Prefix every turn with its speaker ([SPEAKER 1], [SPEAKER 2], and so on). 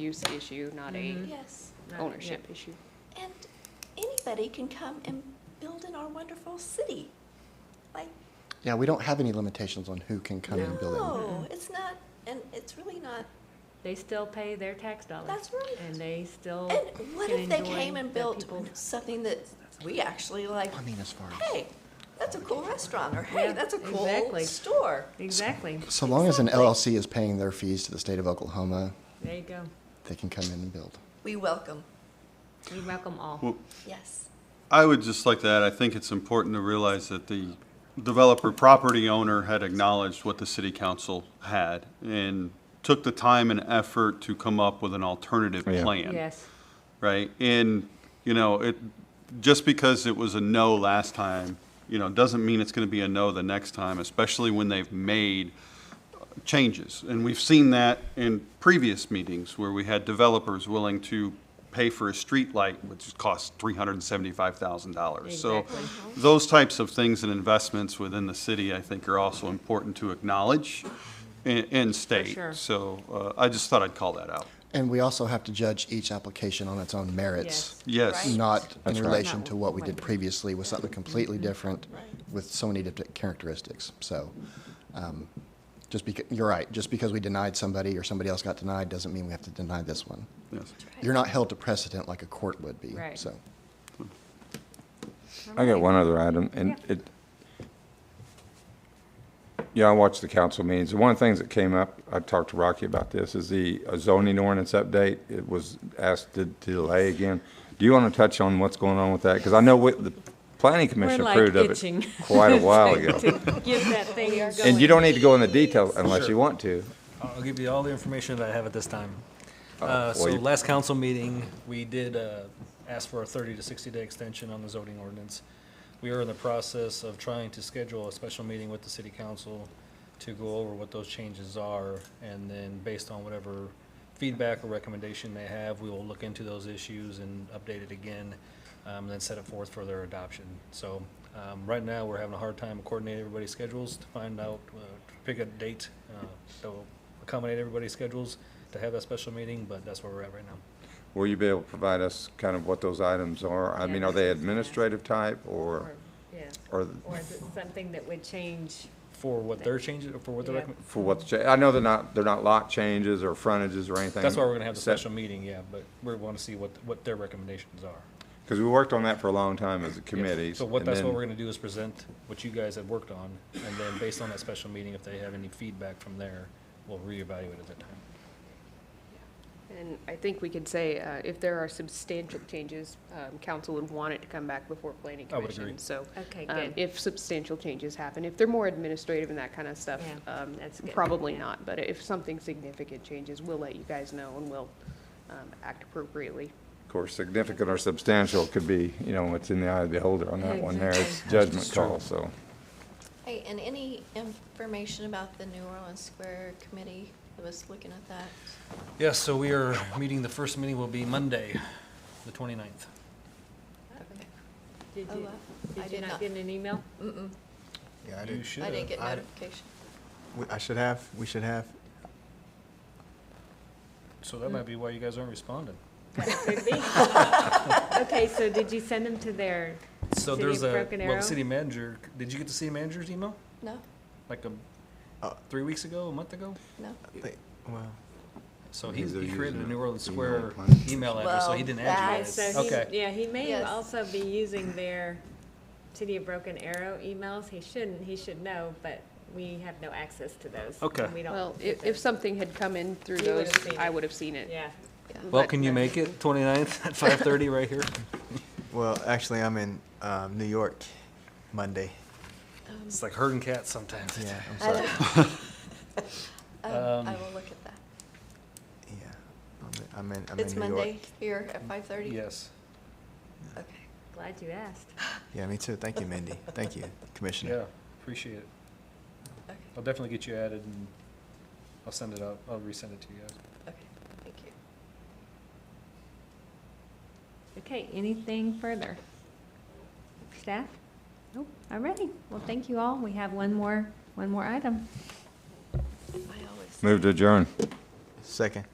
[SPEAKER 1] use issue, Mm-hmm. not a
[SPEAKER 2] Mhm.
[SPEAKER 3] Yes,
[SPEAKER 2] Right,
[SPEAKER 1] ownership issue.
[SPEAKER 3] and anybody can come and build in our wonderful city. Like,
[SPEAKER 4] Yeah, we don't have any limitations on who can come and build it.
[SPEAKER 3] no, it's not, and it's really not,
[SPEAKER 2] yeah. They still pay their tax dollars.
[SPEAKER 3] That's right.
[SPEAKER 2] And they still.
[SPEAKER 3] and what
[SPEAKER 2] can
[SPEAKER 3] if they
[SPEAKER 2] enjoy
[SPEAKER 3] came and
[SPEAKER 2] the
[SPEAKER 3] built
[SPEAKER 2] people-
[SPEAKER 3] something that we actually like,
[SPEAKER 4] I mean, as far as,
[SPEAKER 3] hey, that's a cool restaurant, or hey,
[SPEAKER 2] Yeah,
[SPEAKER 3] that's a cool
[SPEAKER 2] exactly.
[SPEAKER 3] store.
[SPEAKER 2] Exactly.
[SPEAKER 4] so long as an LLC is paying their fees to the state of Oklahoma,
[SPEAKER 2] There you go.
[SPEAKER 4] they can come in and build.
[SPEAKER 3] We welcome,
[SPEAKER 2] We welcome all.
[SPEAKER 5] Well-
[SPEAKER 3] yes.
[SPEAKER 5] I would just like to add, I think it's important to realize that the developer property owner had acknowledged what the city council had and took the time and effort to come up with an alternative
[SPEAKER 4] Yeah.
[SPEAKER 5] plan.
[SPEAKER 2] Yes.
[SPEAKER 5] Right? And, you know, it, just because it was a no last time, you know, doesn't mean it's going to be a no the next time, especially when they've made changes. And we've seen that in previous meetings where we had developers willing to pay for a street light, which cost $375,000. So
[SPEAKER 2] Exactly.
[SPEAKER 5] those types of things and investments within the city, I think, are also important to acknowledge and, and state.
[SPEAKER 2] sure.
[SPEAKER 5] So uh, I just thought I'd call that out.
[SPEAKER 4] And we also have to judge each application on its own merits,
[SPEAKER 5] Yes.
[SPEAKER 3] Right.
[SPEAKER 4] not in
[SPEAKER 6] That's right.
[SPEAKER 4] relation
[SPEAKER 2] Not
[SPEAKER 4] to what we did
[SPEAKER 2] what-
[SPEAKER 4] previously with something completely different
[SPEAKER 3] Right.
[SPEAKER 4] with so many different characteristics. So, um, just because, you're right, just because we denied somebody or somebody else got denied doesn't mean we have to deny this one.
[SPEAKER 5] Yes.
[SPEAKER 4] You're not held to precedent like a court would be,
[SPEAKER 2] Right.
[SPEAKER 4] so.
[SPEAKER 6] I got one other item, and
[SPEAKER 2] Yeah.
[SPEAKER 6] it, yeah, I watched the council meetings, and one of the things that came up, I talked to Rocky about this, is the uh, zoning ordinance update, it was asked to delay again. Do you want to touch on what's going on with that? Because I know what, the planning commission
[SPEAKER 2] like
[SPEAKER 6] approved of
[SPEAKER 2] itching
[SPEAKER 6] it quite a while ago.
[SPEAKER 2] Give that thing a go.
[SPEAKER 6] And you don't need to go into detail unless you want to.
[SPEAKER 7] I'll give you all the information that I have at this time. Uh,
[SPEAKER 6] Oh, well,
[SPEAKER 7] So
[SPEAKER 6] you-
[SPEAKER 7] last council meeting, we did uh, ask for a 30 to 60-day extension on the zoning ordinance. We are in the process of trying to schedule a special meeting with the city council to go over what those changes are, and then based on whatever feedback or recommendation they have, we will look into those issues and update it again, um, and then set it forth for their adoption. So um, right now, we're having a hard time coordinating everybody's schedules to find out, uh, to pick a date uh, that will accommodate everybody's schedules to have that special meeting, but that's where we're at right now.
[SPEAKER 6] Will you be able to provide us kind of what those items are? I
[SPEAKER 2] Yeah,
[SPEAKER 6] mean, are they
[SPEAKER 2] this is-
[SPEAKER 6] administrative type, or,
[SPEAKER 2] Or- Yeah.
[SPEAKER 6] or
[SPEAKER 2] Or is it something that would change?
[SPEAKER 7] For what their changes, for what the
[SPEAKER 2] Yeah.
[SPEAKER 7] recommend,
[SPEAKER 6] for what's, cha- I know they're not, they're not lot changes or frontages or anything.
[SPEAKER 7] that's why we're gonna have the
[SPEAKER 6] set-
[SPEAKER 7] special meeting, yeah, but we want to see what, what their recommendations are.
[SPEAKER 6] Because we worked on that for a long time as a committee.
[SPEAKER 7] So what,
[SPEAKER 6] and
[SPEAKER 7] that's what
[SPEAKER 6] then-
[SPEAKER 7] we're gonna do is present what you guys have worked on, and then based on that special meeting, if they have any feedback from there, we'll reevaluate at that time.
[SPEAKER 1] And I think we could say, uh, if there are substantial changes, um, council would want it to come back before planning
[SPEAKER 7] I would
[SPEAKER 1] commission.
[SPEAKER 7] agree.
[SPEAKER 1] So
[SPEAKER 2] Okay,
[SPEAKER 1] um,
[SPEAKER 2] good.
[SPEAKER 1] if substantial changes happen, if they're more administrative and that kind of stuff,
[SPEAKER 2] Yeah,
[SPEAKER 1] um,
[SPEAKER 2] that's good,
[SPEAKER 1] probably
[SPEAKER 2] yeah.
[SPEAKER 1] not. But if something significant changes, we'll let you guys know and we'll um, act appropriately.
[SPEAKER 6] Of course, significant or substantial could be, you know, it's in the eye of the beholder on that one there. It's judgment call, so.
[SPEAKER 3] Hey, and any information about the New Orleans Square Committee, I was looking at that.
[SPEAKER 7] Yes, so we are meeting, the first meeting will be Monday, the 29th.
[SPEAKER 2] Did
[SPEAKER 3] Oh,
[SPEAKER 2] you,
[SPEAKER 3] wow. I
[SPEAKER 2] did you
[SPEAKER 3] did
[SPEAKER 2] not
[SPEAKER 3] not.
[SPEAKER 2] get an email?
[SPEAKER 3] Mm-mm,
[SPEAKER 8] Yeah, I
[SPEAKER 7] You
[SPEAKER 8] did.
[SPEAKER 7] should
[SPEAKER 3] I didn't get
[SPEAKER 8] I-
[SPEAKER 3] notification.
[SPEAKER 8] we- I should have, we should have.
[SPEAKER 7] So that might be why you guys aren't responding.
[SPEAKER 2] That could be. Okay, so did you send them to their,
[SPEAKER 7] So
[SPEAKER 2] City
[SPEAKER 7] there's
[SPEAKER 2] of
[SPEAKER 7] a,
[SPEAKER 2] Broken
[SPEAKER 7] well,
[SPEAKER 2] Arrow?
[SPEAKER 7] the city manager, did you get the city manager's email?
[SPEAKER 3] No,
[SPEAKER 7] Like a,
[SPEAKER 8] Uh,
[SPEAKER 7] three weeks ago, a month ago?
[SPEAKER 3] no.
[SPEAKER 8] they- Well,
[SPEAKER 7] So he,
[SPEAKER 6] Because they're
[SPEAKER 7] he created a
[SPEAKER 6] using
[SPEAKER 7] New
[SPEAKER 6] it.
[SPEAKER 7] Orleans
[SPEAKER 6] Email
[SPEAKER 7] Square
[SPEAKER 6] plan.
[SPEAKER 7] email address, so he
[SPEAKER 3] Well,
[SPEAKER 7] didn't add you
[SPEAKER 3] that's-
[SPEAKER 7] guys.
[SPEAKER 2] so
[SPEAKER 7] Okay.
[SPEAKER 2] he, yeah, he may
[SPEAKER 3] Yes.
[SPEAKER 2] also be using their City of Broken Arrow emails. He shouldn't, he should know, but we have no access to those.
[SPEAKER 7] Okay.
[SPEAKER 2] and we don't
[SPEAKER 1] Well,
[SPEAKER 2] get
[SPEAKER 1] if, if
[SPEAKER 2] those.
[SPEAKER 1] something had come in through
[SPEAKER 2] You
[SPEAKER 1] those,
[SPEAKER 2] would've seen
[SPEAKER 1] I
[SPEAKER 2] it.
[SPEAKER 1] would have seen it.
[SPEAKER 2] Yeah.
[SPEAKER 7] Well,
[SPEAKER 1] But-
[SPEAKER 7] can you make it 29th at 5:30 right here?
[SPEAKER 8] well, actually, I'm in um, New York Monday.
[SPEAKER 7] It's like herding cats sometimes.
[SPEAKER 8] Yeah, I'm
[SPEAKER 3] I
[SPEAKER 8] sorry.
[SPEAKER 3] Um, I
[SPEAKER 7] Um,
[SPEAKER 3] will look at that.
[SPEAKER 8] Yeah, I'm in- I'm in, I'm in New York.
[SPEAKER 3] It's Monday here at five thirty?
[SPEAKER 7] Yes.
[SPEAKER 3] Okay.
[SPEAKER 2] Glad you asked.
[SPEAKER 8] Yeah, me too. Thank you, Mindy. Thank you,
[SPEAKER 7] Yeah,
[SPEAKER 8] Commissioner.
[SPEAKER 7] appreciate it.
[SPEAKER 3] Okay,
[SPEAKER 7] I'll definitely get you added and I'll send it out. I'll resend it to you guys.
[SPEAKER 3] okay, thank you.
[SPEAKER 2] Okay, anything further? Staff? Nope. All righty. Well, thank you all. We have one more, one more item.
[SPEAKER 3] I always.
[SPEAKER 6] Move to adjourn.
[SPEAKER 8] Second.